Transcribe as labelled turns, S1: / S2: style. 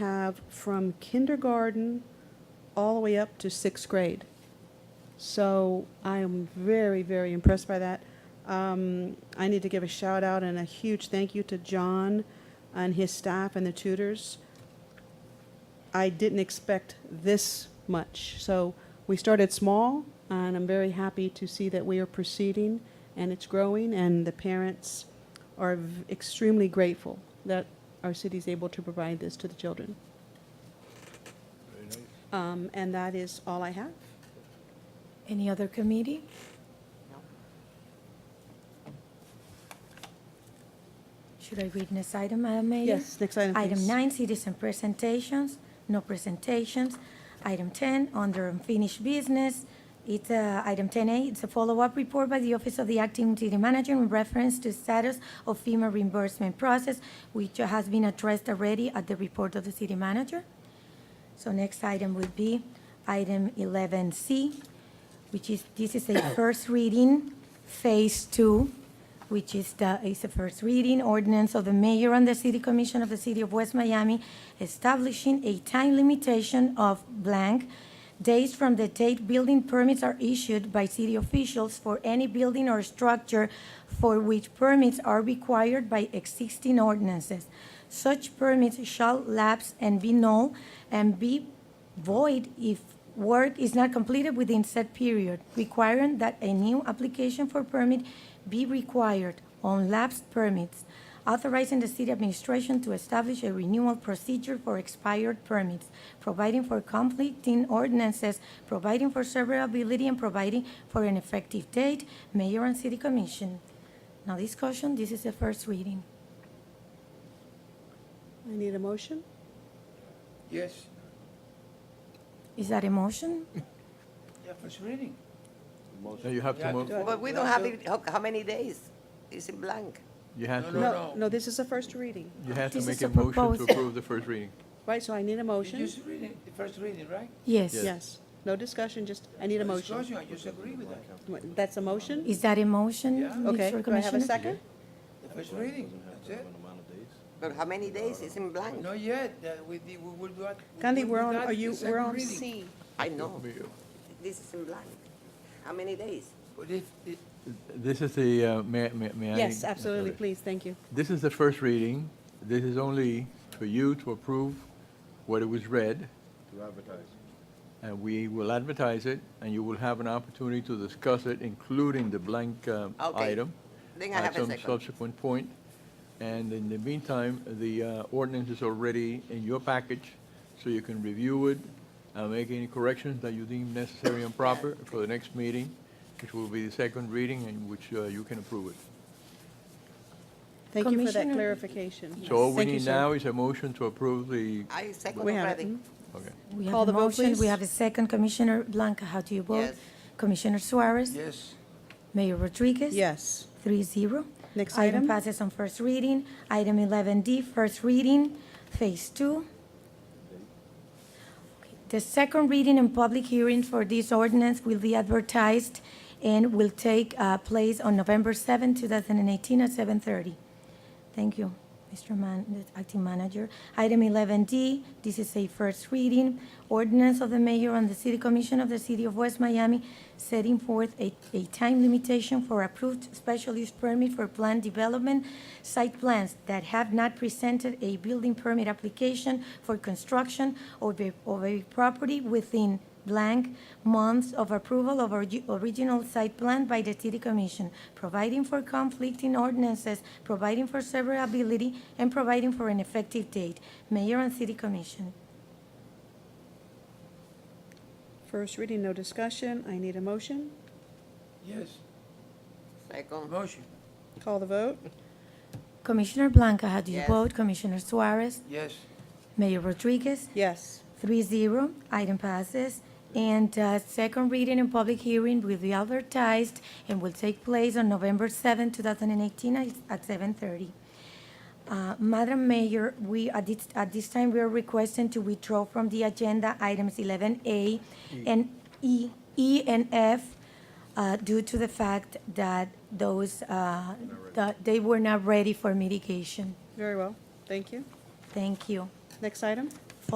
S1: have from kindergarten all the way up to sixth grade. So I am very, very impressed by that. Um, I need to give a shout out and a huge thank you to John and his staff and the tutors. I didn't expect this much. So we started small, and I'm very happy to see that we are proceeding and it's growing, and the parents are v- extremely grateful that our city is able to provide this to the children. Um, and that is all I have.
S2: Any other committee? Should I read this item, Madam Mayor?
S1: Yes, next item,
S2: Item
S1: please.
S2: nine, citizen presentations, no presentations. Item 10, under unfinished business, it's, uh, item 10A, it's a follow-up report by the Office of the Acting City Manager in reference to status of FEMA reimbursement process, which has been addressed already at the report of the city manager. So next item would be item 11C, which is, this is a first reading, Phase 2, which is the, is a first reading ordinance of the mayor and the city commission of the city of West Miami establishing a time limitation of blank days from the date building permits are issued by city officials for any building or structure for which permits are required by existing ordinances. Such permits shall lapse and be null and be void if work is not completed within said period, requiring that a new application for permit be required on lapsed permits, authorizing the city administration to establish a renewal procedure for expired permits, providing for conflicting ordinances, providing for severability, and providing for an effective date, mayor and city commission. Now discussion, this is the first reading.
S1: I need a motion.
S3: Yes.
S2: Is that a motion?
S3: Yeah, first reading.
S4: No, you have to
S3: Yeah,
S4: move,
S3: to-
S5: But we don't have it, how, how many days? It's in blank.
S4: you have
S3: No,
S4: to,
S3: no.
S1: No, this is a first reading,
S4: you have to
S2: This
S4: make
S2: is a
S4: a motion to
S2: proposal.
S4: approve the first reading.
S1: right? So I need a motion.
S3: Just reading, the first reading, right?
S2: Yes.
S1: Yes, no discussion, just, I need a motion.
S3: Discussion, I just agree with that.
S1: Wait, That's a motion?
S2: Is that a motion,
S3: Yeah.
S1: Okay, do I
S2: Mr.
S1: have a
S2: Commissioner?
S1: second?
S3: The first reading, that's it.
S5: But how many days? It's in blank.
S3: Not yet, that we, did- we will do that. we
S1: Gandhi,
S3: will
S1: we're
S3: do
S1: on,
S3: that
S1: are you,
S3: the
S1: we're
S3: second
S1: on
S3: reading.
S1: C.
S5: I know,
S4: You-
S5: this is in blank. How many days?
S3: But if, if-
S4: This is the, uh, may, may may I?
S1: Yes, absolutely, please, thank you.
S4: This is the first reading. This is only for you to approve what it was read.
S6: To advertise.
S4: And we will advertise it, and you will have an opportunity to discuss it, including the blank uh,
S5: Okay.
S4: item.
S5: Then I have a
S4: At
S5: second.
S4: some subsequent point. And in the meantime, the uh, ordinance is already in your package, so you can review it, uh, make any corrections that you deem necessary and proper for the next meeting, which will be the second reading, in which uh, you can approve it.
S1: Thank you for that
S2: Commissioner-
S1: clarification.
S4: So all we
S1: Thank you,
S4: need
S1: sir.
S4: now is a motion to approve the,
S5: I second
S1: We have it.
S5: already.
S4: okay.
S2: We have
S1: Call
S2: a
S1: the vote,
S2: motion, we
S1: please.
S2: have a second. Commissioner Blanca, how do you vote?
S5: Yes.
S2: Commissioner Suarez?
S3: yes,
S2: Mayor Rodriguez?
S1: Yes,
S2: Three zero.
S1: Next item.
S2: Item passes on first reading. Item 11D, first reading, Phase 2. The second reading and public hearing for this ordinance will be advertised and will take uh, place on November 7, 2018 at 7:30. Thank you, Mr. Man, the Acting Manager. Item 11D, this is a first reading, ordinance of the mayor and the city commission of the city of West Miami setting forth a, a time limitation for approved special use permit for planned development site plans that have not presented a building permit application for construction of a, of a property within blank months of approval of orgi- original site plan by the city commission, providing for conflicting ordinances, providing for severability, and providing for an effective date. Mayor and city commission.
S1: first reading, no discussion, I need a motion.
S3: yes,
S5: Second,
S3: motion,
S1: Call the vote?
S2: Commissioner Blanca, how do you
S5: Yes.
S2: vote? Commissioner Suarez?
S3: yes.
S2: Mayor Rodriguez?
S1: Yes.
S2: Three zero, item passes. And uh, second reading and public hearing will be advertised and will take place on November 7, 2018 at- at 7:30. Uh, Madam Mayor, we, at this, at this time, we are requesting to withdraw from the agenda items 11A and E, E and F uh, due to the fact that those, uh, that they were not ready for mitigation.
S1: Very well, thank you.
S2: Thank you.
S1: Next item?